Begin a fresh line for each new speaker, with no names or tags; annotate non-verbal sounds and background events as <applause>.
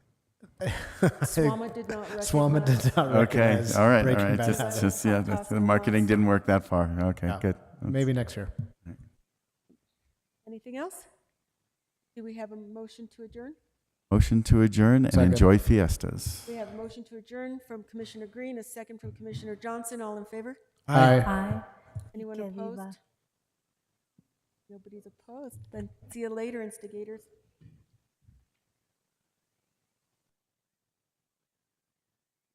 <laughs>
Swama did not recognize.
Swama did not
Okay,
recognize
all right, all
Uh, Breaking
right.
Bad
Just,
habit.
just, yeah, that's- the marketing didn't work that far. Okay,
No.
good.
Maybe next year.
Anything else? Do we have a motion to adjourn?
Motion to adjourn and
Second.
enjoy fiestas.
We have a motion to adjourn from Commissioner Green, a second from Commissioner Johnson. All in favor?
Aye.
Aye.
Anyone
Que viva.
opposed? Nobody's opposed. Then see you later, instigators.